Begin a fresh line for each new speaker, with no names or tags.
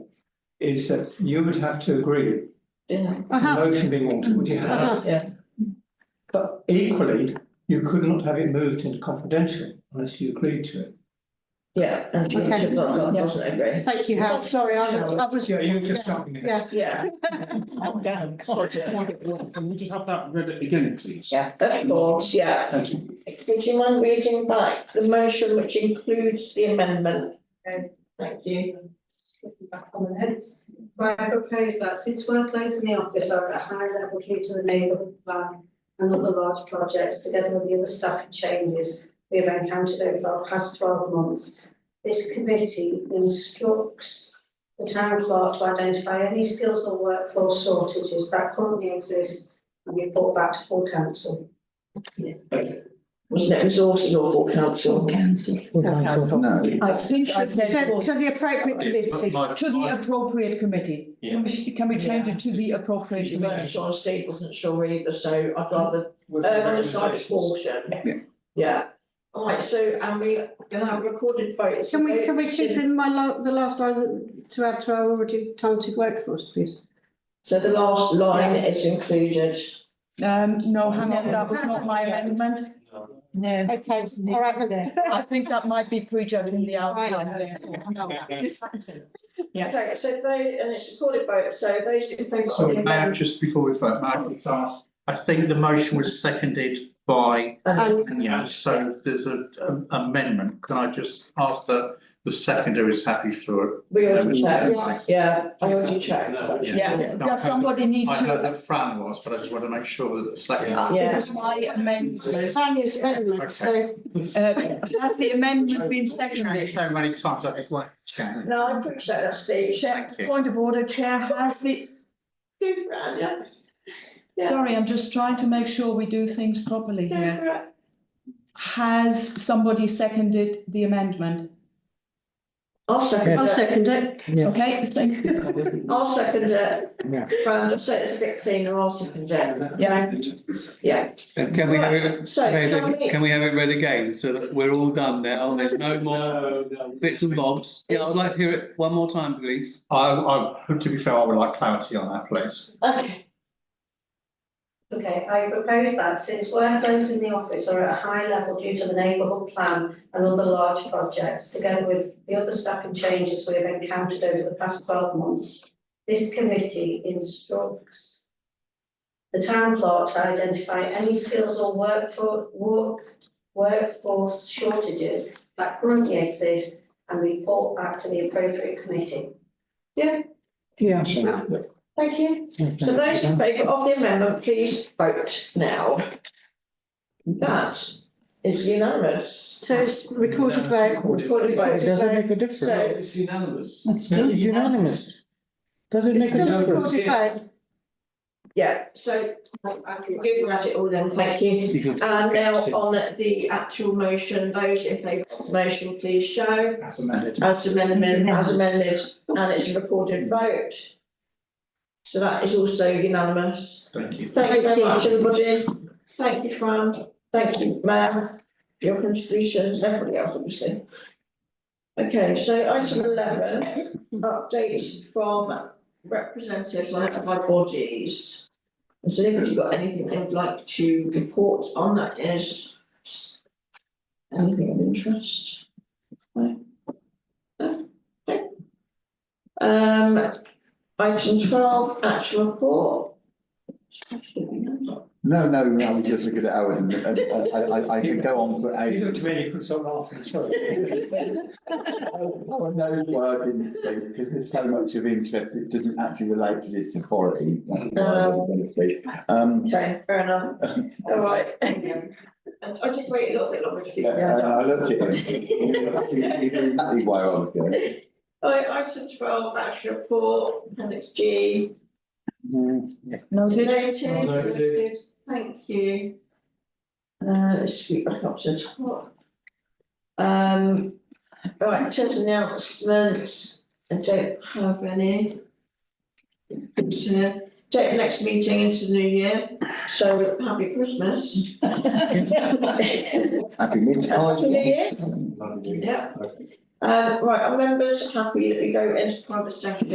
is that you would have to agree,
yeah,
the
Uh-huh.
motion being altered, would you have?
Uh-huh.
yeah,
But equally, you could not have it moved into confidential unless you agreed to it.
yeah, and you
Okay.
should vote on, doesn't it, Greg?
Thank you, Howard. Oh, Sorry, I was, I was.
Yeah, you were just jumping in.
Yeah.
Yeah. I'm down.
Can we just have that read again, please?
Yeah, of course, yeah.
Thank you.
Would you mind reading back the motion which includes the amendment? Thank you.
looking back on the notes. But I propose that since workloads in the office are at a high level due to the neighbourhood plan and other large projects, together with the other staffing changes we have encountered over the past twelve months, this committee instructs the town clerk to identify any skills or workforce shortages that currently exist and report back to full council.
Wasn't it resources or full council? Council.
council.
No,
I think I
So,
said.
so the appropriate committee.
To the appropriate committee.
Yeah.
Can we- Can we change it to the appropriate
You weren't
committee?
sure, Steve wasn't sure either, so I'd rather,
With
uh,
the
undecided
recommendations.
portion.
Yeah.
Yeah, alright, so, and we, gonna have recorded votes.
Can we, can we keep in my, la- the last line to add to our already talented workforce, please?
So the last line is included.
Um, no, hang on, that was not my amendment. No.
Okay, all right. then.
I think that might be prejudging the outcome there. Yeah.
Okay, so if they, and it's recorded vote, so those in favour of
So
the
may I
amendment.
just before we vote, may I just ask, I think the motion was seconded by
And
Anya, so if there's a a- amendment, can I just ask that the seconder is happy for it?
We
There
already
was no
checked,
second.
yeah, I already checked.
Yeah, does somebody need
I know
to?
that Fran was, but I just want to make sure that the second.
It was my amendment.
Tanya's amendment, so,
Uh, has the amendment been seconded?
So many times, I just want to check.
No, I appreciate that, Steve.
Chair,
Thank you.
point of order, Chair, has the,
Go for it, Anya. Yeah.
sorry, I'm just trying to make sure we do things properly
Go
here.
for it.
Has somebody seconded the amendment?
I'll second
I'll
it.
second it.
Okay, thank you.
I'll second it. Fran, just so it's a bit cleaner, I'll second it.
Yeah.
Yeah.
Can we have it,
So can we,
can we have it read again so that we're all done now? There's no more bits and bobs. Yeah, I'd like to hear it one more time, please.
I I, to be fair, I would like clarity on that, please.
okay,
Okay, I propose that since workloads in the office are at a high level due to the neighbourhood plan and other large projects, together with the other staffing changes we have encountered over the past twelve months, this committee instructs the town clerk to identify any skills or workfor- work, workforce shortages that currently exist and report back to the appropriate committee.
Yeah.
thank you. So those in favour of the amendment, please vote now. That is unanimous.
So it's recorded vote.
Recorded vote.
a
So
It's unanimous.
It's still unanimous. Does it
It's
make a
still
difference?
recorded vote.
Yeah, so I can do that it all then, thank you.
You can-
And Uh, now on the actual motion, those in favour of the motion, please show.
As amended.
As amended, as amended, and it's a recorded vote. So that is also unanimous.
Thank you.
Thank you very much, everybody. Thank you, Fran. Thank you, Mayor. Your contributions, everybody else, obviously. Okay, so item eleven, updates from representatives on notified bodies. Has anybody got anything they would like to report on that is anything of interest? No? No? Okay. Um, item twelve, actual report.
No, no, no, I was just looking at Owen and and I I I could go on for
You
ages.
looked at me, and you could stop laughing, sorry.
Oh, no, why I didn't speak, because there's so much of interest, it doesn't actually relate to this authority. That's why I wasn't gonna speak. Um,
Okay, fair enough. All right. And I'll just wait a little bit longer. to see.
yeah, and I looked at him. He knew Exactly why I was going.
All right, item twelve, action report, appendix G.
Mm-hmm.
Noted.
Noted.
Noted.
Thank you. Uh, let's scoot back up to the top. Um, all right, in terms of announcements, I don't have any. So, Take the next meeting into the new year, so happy Christmas.
Happy mid-time.
Happy New Year. Uh, Yeah. Um, right, our members happy that we go into private session